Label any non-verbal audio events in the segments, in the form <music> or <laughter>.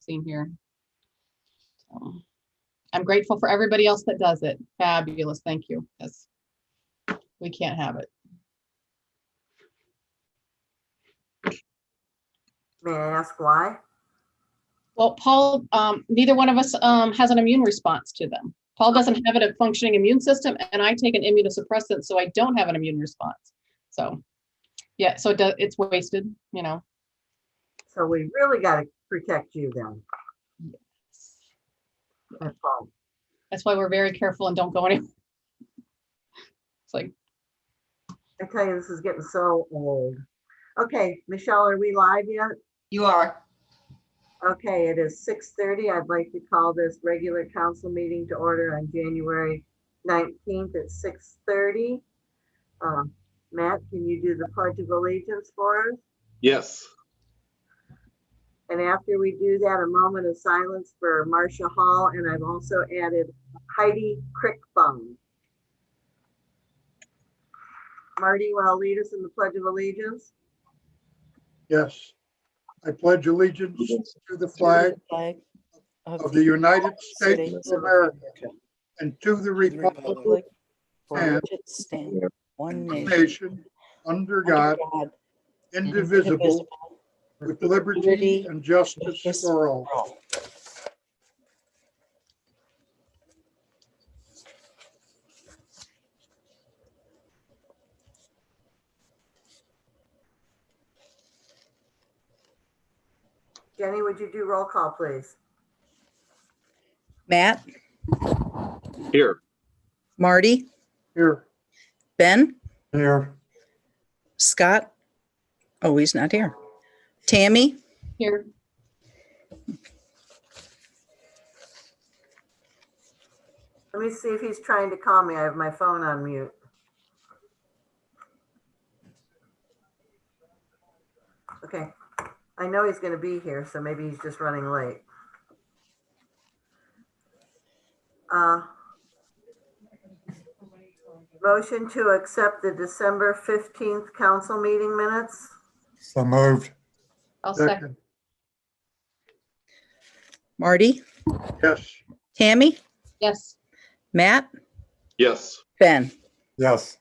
seen here. So, I'm grateful for everybody else that does it. Fabulous, thank you. Yes. We can't have it. May I ask why? Well, Paul, um, neither one of us, um, has an immune response to them. Paul doesn't have a functioning immune system and I take an immunosuppressant, so I don't have an immune response. So, yeah, so it does, it's wasted, you know. So we really got to protect you then. That's all. That's why we're very careful and don't go anywhere. <laughs> It's like, I tell you, this is getting so old. Okay, Michelle, are we live yet? You are. Okay, it is six thirty. I'd like to call this regular council meeting to order on January nineteenth at six thirty. Uh, Matt, can you do the pledge of allegiance for us? Yes, And after we do that, a moment of silence for Marcia Hall, and I've also added Heidi Crickbum. Marty, you want to lead us in the pledge of allegiance? Yes. I pledge allegiance to the flag flag of the United States of America and to the republic Republic for and which it stands, one of nation, nation, under under God, God, indivisible, with liberty and justice for all. Jenny, would you do roll call, please? Matt, here. Marty, Here. Ben, Here. Scott. Oh, he's not here. Tammy, here, Let me see if he's trying to call me. I have my phone on mute. Okay, I know he's gonna be here, so maybe he's just running late. Uh, Motion to accept the December fifteenth council meeting minutes. So moved. I'll second, Marty, Yes. Tammy, yes. Matt, Yes, Ben. Yes.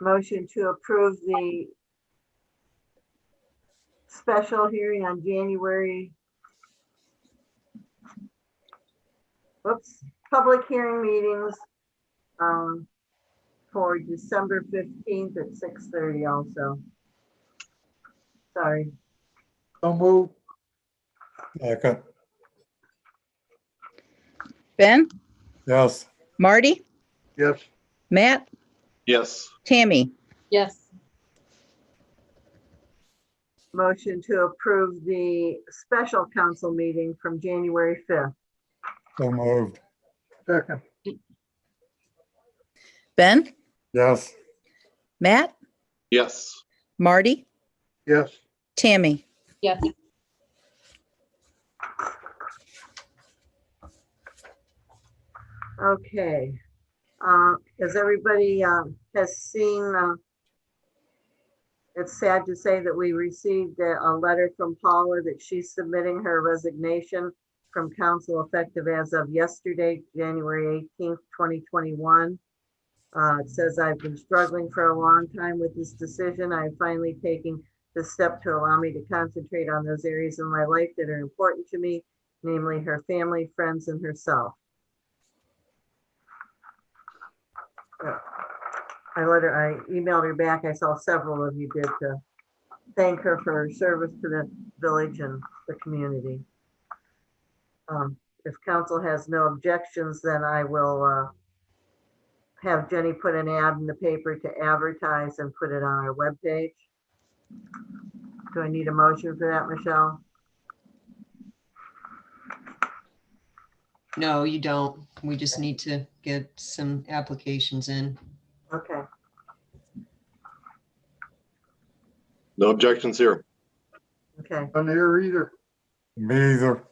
Motion to approve the special hearing on January. Whoops, public hearing meetings, um, for December fifteenth at six thirty also. Sorry, So moved. Second. Ben, Yes. Marty, Yes. Matt, yes, Tammy, Yes, motion to approve the special council meeting from January fifth. So moved. Second. Ben, Yes. Matt, yes, Marty, Yes. Tammy. yes, Okay. Uh, As everybody um, has seen, uh, it's sad to say that we received a a letter from Paula that she's submitting her resignation from council effective as of yesterday, January 18th, 2021. Uh, It says, "I've been struggling for a long time with this decision. I'm finally taking the step to allow me to concentrate on those areas in my life that are important to me, namely her family, friends, and herself." I let her, I emailed her back. I saw several of you did to thank her for her service to the village and the community. Um, If council has no objections, then I will uh, have Jenny put an ad in the paper to advertise and put it on our webpage. Do I need a motion for that, Michelle? No, you don't. We just need to get some applications in. Okay, no objections here. okay. None here either. Me either.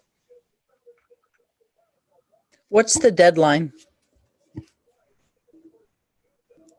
What's the deadline?